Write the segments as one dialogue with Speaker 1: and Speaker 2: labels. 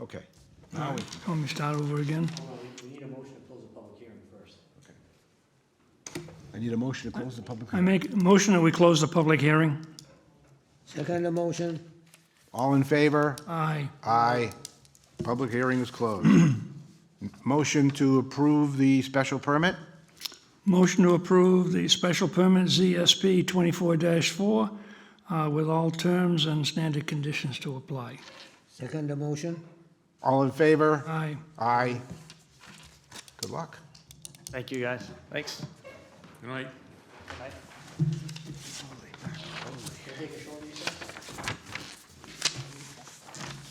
Speaker 1: Okay. Now we,
Speaker 2: Want me to start over again?
Speaker 3: Hold on, we- we need a motion to close the public hearing first.
Speaker 1: I need a motion to close the public
Speaker 2: I
Speaker 1: hearing.
Speaker 2: make a motion that we close the public hearing.
Speaker 4: Second motion,
Speaker 1: All in favor?
Speaker 2: Aye.
Speaker 1: Aye. Public hearing is closed. Motion to approve the special permit?
Speaker 2: Motion to approve the special permit ZSP 24-4 uh, with all terms and standard conditions to apply.
Speaker 4: second motion,
Speaker 1: All in favor?
Speaker 2: Aye.
Speaker 1: Aye. Good luck.
Speaker 3: Thank you, guys. Thanks.
Speaker 5: Good night.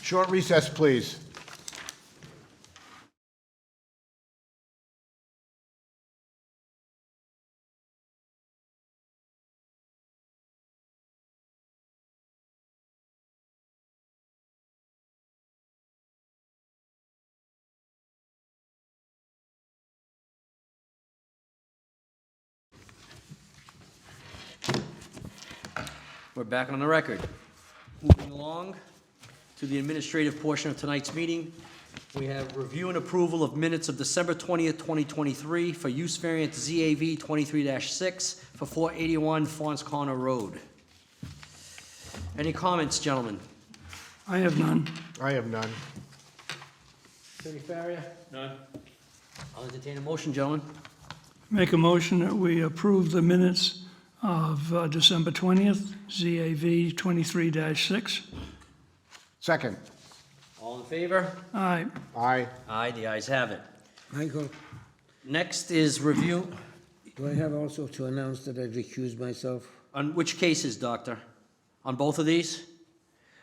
Speaker 1: Short recess, please.
Speaker 6: We're back on the record. Moving along to the administrative portion of tonight's meeting, we have review and approval of minutes of December 20th, 2023 for use variance ZAV 23-6 for 481 Fons Connor Road. Any comments, gentlemen?
Speaker 2: I have none.
Speaker 1: I have none.
Speaker 6: Attorney Farrier? None. I'll entertain a motion, gentlemen.
Speaker 2: Make a motion that we approve the minutes of uh, December 20th, ZAV 23-6.
Speaker 1: Second.
Speaker 6: All in favor?
Speaker 2: Aye.
Speaker 1: Aye.
Speaker 6: Aye, the ayes have it.
Speaker 4: Michael,
Speaker 6: Next is review,
Speaker 4: do I have also to announce that I recuse myself?
Speaker 6: on which cases, Doctor? On both of these?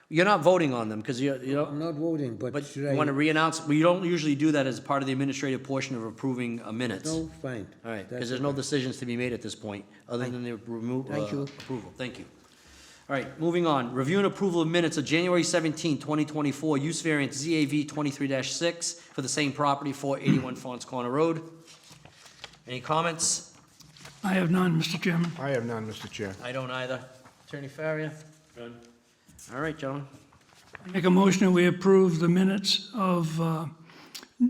Speaker 6: You're not voting on them, because you, you don't.
Speaker 4: I'm not voting, but
Speaker 6: But
Speaker 4: should
Speaker 6: you want to
Speaker 4: I?
Speaker 6: re-announce, we don't usually do that as part of the administrative portion of approving uh, minutes. All
Speaker 4: No, fine.
Speaker 6: right, because
Speaker 4: That's
Speaker 6: there's no decisions to be made at this point, other than the remo- uh,
Speaker 4: Thank you.
Speaker 6: approval. Thank you. All right, moving on. Review and approval of minutes of January 17, 2024, use variance ZAV 23-6 for the same property, 481 Fons Corner Road. Any comments?
Speaker 2: I have none, Mr. Chairman.
Speaker 1: I have none, Mr. Chair.
Speaker 6: I don't either. Attorney Farrier? All right, gentlemen.
Speaker 2: Make a motion that we approve the minutes of uh,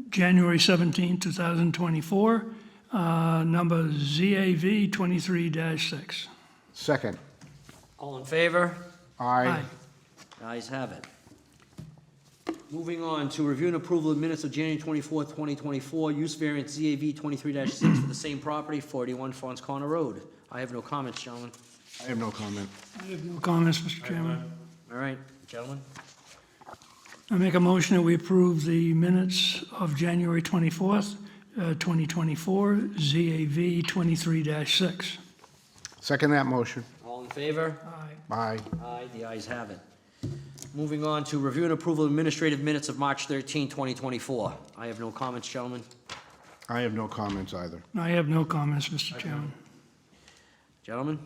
Speaker 2: January 17, 2024, uh, number ZAV 23-6.
Speaker 1: Second.
Speaker 6: All in favor?
Speaker 1: Aye.
Speaker 6: Ayes have it. Moving on to review and approval of minutes of January twenty-fourth, twenty twenty-four, use variance ZAV twenty-three six for the same property, forty-one Fons Corner Road. I have no comments, gentlemen.
Speaker 1: I have no comment.
Speaker 2: I have no comments, Mr. Chairman.
Speaker 6: All right, gentlemen?
Speaker 2: I make a motion that we approve the minutes of January 24th, uh, 2024, ZAV 23-6.
Speaker 1: Second that motion.
Speaker 6: All in favor?
Speaker 2: Aye.
Speaker 1: Aye.
Speaker 6: Aye, the ayes have it. Moving on to review and approval of administrative minutes of March 13, 2024. I have no comments, gentlemen.
Speaker 1: I have no comments either.
Speaker 2: I have no comments, Mr. Chairman.
Speaker 6: Gentlemen?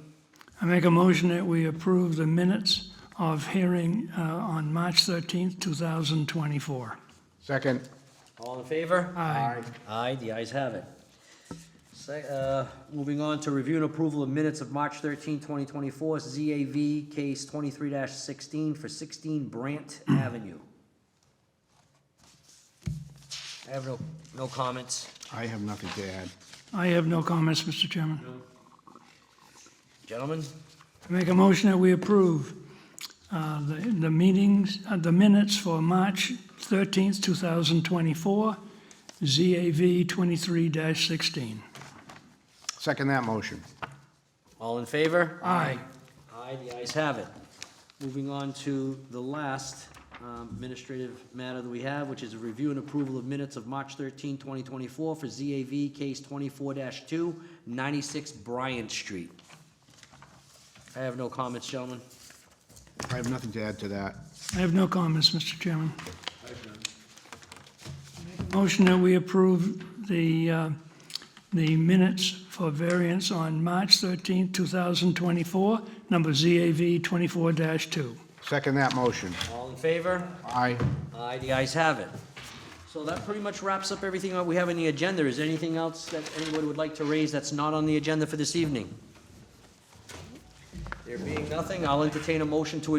Speaker 2: I make a motion that we approve the minutes of hearing uh, on March 13th, 2024.
Speaker 1: Second.
Speaker 6: All in favor?
Speaker 2: Aye.
Speaker 6: Aye, the ayes have it. Sec- uh, Moving on to review and approval of minutes of March 13, 2024, ZAV case 23-16 for 16 Brant Avenue. I have no, no comments.
Speaker 1: I have nothing to add.
Speaker 2: I have no comments, Mr. Chairman.
Speaker 6: Gentlemen,
Speaker 2: I make a motion that we approve uh, the the meetings, uh, the minutes for March 13th, 2024, ZAV 23-16.
Speaker 1: Second that motion.
Speaker 6: all in favor?
Speaker 2: Aye.
Speaker 6: Aye, the ayes have it. Moving on to the last um, administrative matter that we have, which is a review and approval of minutes of March 13, 2024 for ZAV Case 24-2, 96 Bryant Street. I have no comments, gentlemen.
Speaker 1: I have nothing to add to that.
Speaker 2: I have no comments, Mr. Chairman. Make a Motion that we approve the, uh, the minutes for variance on March 13th, 2024, number ZAV 24-2.
Speaker 1: Second that motion.
Speaker 6: All in favor?
Speaker 1: Aye.
Speaker 6: Aye, the ayes have it. So that pretty much wraps up everything that we have on the agenda. Is there anything else that anybody would like to raise that's not on the agenda for this evening? There being nothing, I'll entertain a motion to